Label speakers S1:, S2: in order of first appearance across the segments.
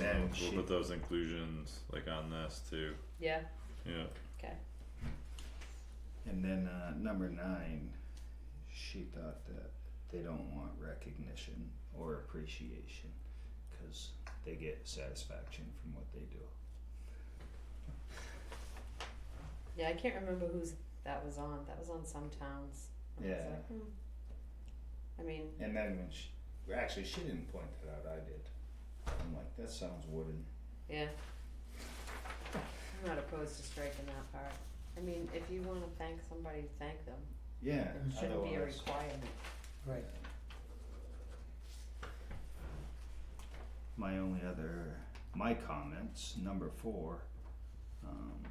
S1: Yeah,
S2: Oh,
S3: We'll-
S1: she-
S3: We'll put those inclusions like on this too,
S2: Yeah,
S3: yeah,
S2: okay.
S1: And then uh, number nine, she thought that they don't want recognition or appreciation because they get satisfaction from what they do.
S2: Yeah, I can't remember whose that was on. That was on some towns. I was
S1: Yeah.
S2: like, hmm. I mean,
S1: And then when she, well, actually, she didn't point that out. I did. I'm like, that sounds wooden.
S2: yeah. I'm not opposed to striking that part. I mean, if you wanna thank somebody, thank them.
S1: Yeah.
S2: It shouldn't be a
S1: otherwise-
S2: requirement.
S4: Right.
S1: My only other, my comments, number four, um,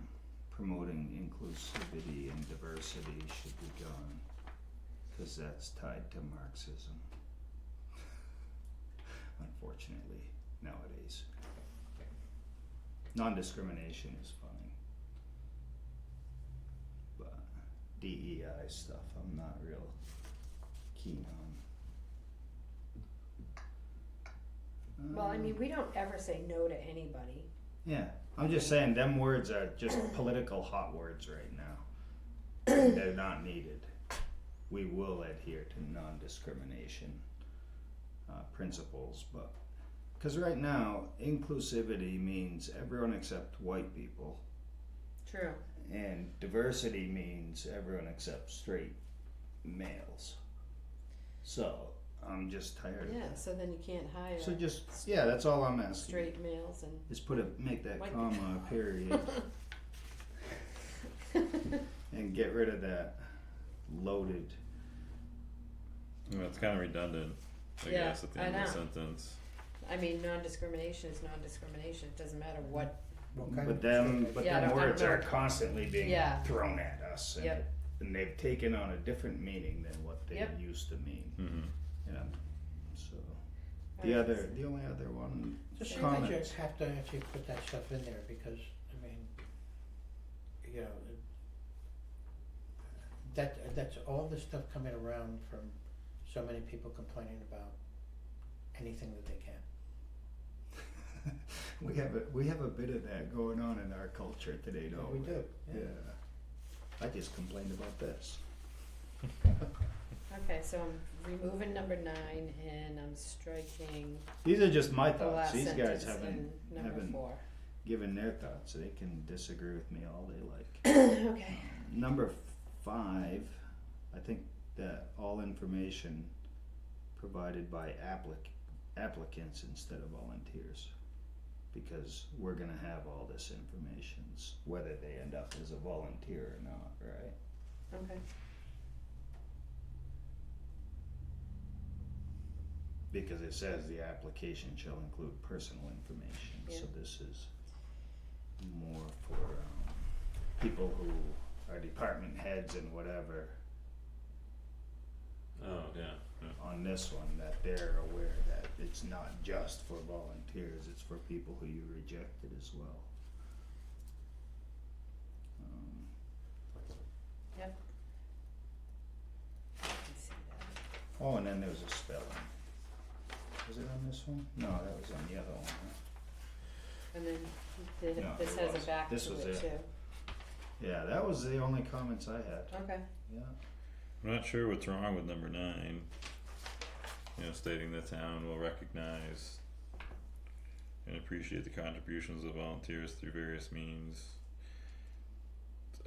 S1: promoting inclusivity and diversity should be gone. Cause that's tied to Marxism. Unfortunately, nowadays. Non-discrimination is fine. But DEI stuff, I'm not real keen on.
S2: Well, I
S1: Um,
S2: mean, we don't ever say no to anybody.
S1: yeah, I'm just saying them words are just political hot words right now. They're not needed. We will adhere to non-discrimination uh, principles, but because right now inclusivity means everyone except white people,
S2: True.
S1: and diversity means everyone except straight males. So I'm just tired of
S2: Yeah,
S1: that.
S2: so then you can't hire
S1: So just yeah, that's all I'm asking.
S2: straight males and
S1: Is put a make that
S2: White-
S1: comma a period. and get rid of that loaded.
S3: Well, it's kinda redundant, I
S2: Yeah,
S3: guess, at the
S2: I
S3: end of the
S2: know.
S3: sentence.
S2: I mean, non-discrimination is non-discrimination. It doesn't matter what.
S4: What kind
S1: But
S4: of
S1: them, but
S2: Yeah, I
S1: them
S2: don't- I don't
S1: words are
S2: know.
S1: constantly being
S2: Yeah.
S1: thrown at us, and,
S2: Yep.
S1: and they've taken on a different meaning than what they
S2: Yep.
S1: used to mean.
S3: Mhm.
S1: Yeah. So the
S2: Alright,
S1: other, the only other one,
S4: Just think that you
S1: comments.
S4: have to actually put that stuff in there because, I mean, you know, it- that, that's all the stuff coming around from so many people complaining about anything that they can.
S1: we have a we have a bit of that going on in our culture today, don't we?
S4: We do,
S1: Yeah. I just complained about this.
S2: Okay, so I'm removing number nine and I'm striking
S1: These are just my
S2: the
S1: thoughts.
S2: last
S1: These guys
S2: sentence
S1: haven't
S2: and number
S1: haven't-
S2: four.
S1: given their thoughts. They can disagree with me all they like.
S2: Okay,
S1: Number five, I think that all information provided by applic- applicants instead of volunteers. Because we're gonna have all this information, s- whether they end up as a volunteer or not, right?
S2: okay,
S1: Because it says the application shall include personal information, so this is more for, um, people who are department heads and whatever,
S3: Oh, yeah, yeah,
S1: on this one that they're aware that it's not just for volunteers, it's for people who you rejected as well. Um,
S2: I can see that.
S1: Oh, and then there was a spelling. Was it on this one? No, that was on the other one, huh?
S2: And then the,
S1: No,
S2: this
S1: it
S2: has
S1: was-
S2: a back to it
S1: this
S2: too.
S1: was it. Yeah, that was the only comments I had,
S2: Okay,
S1: yeah.
S3: I'm not sure what's wrong with number nine. You know, stating the town will recognize and appreciate the contributions of volunteers through various means.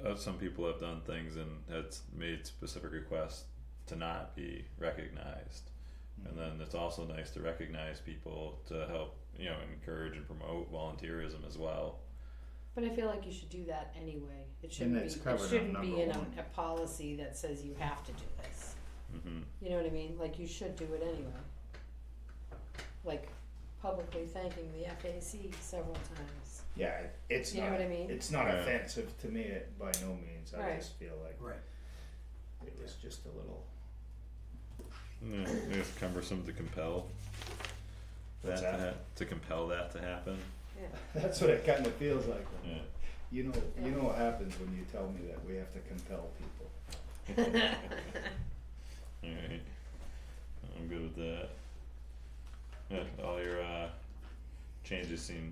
S3: Uh, some people have done things and had s- made specific requests to not be recognized. And then it's also nice to recognize people to help, you know, encourage and promote volunteerism as well.
S2: but I feel like you should do that anyway. It shouldn't be,
S1: that's covered
S2: it
S1: on
S2: shouldn't be
S1: number
S2: in a,
S1: one.
S2: a policy that says you have to do this.
S3: hmm
S2: You know what I mean? Like you should do it anyway. Like publicly thanking the FAC several times.
S1: Yeah, it- it's
S2: You know
S1: not,
S2: what I mean?
S1: it's not
S3: Yeah.
S1: offensive to me it- by no means, I
S2: Right.
S1: just feel like
S4: Right.
S1: it was just a little,
S3: Yeah, it's cumbersome to compel that
S1: What's
S3: to
S1: that?
S3: ha- to compel that to happen.
S1: that's what it kinda feels like.
S3: Yeah.
S1: You know, you
S2: Yeah.
S1: know what happens when you tell me that we have to compel people.
S3: Alright. I'm good with that. Yeah, all your uh changes seem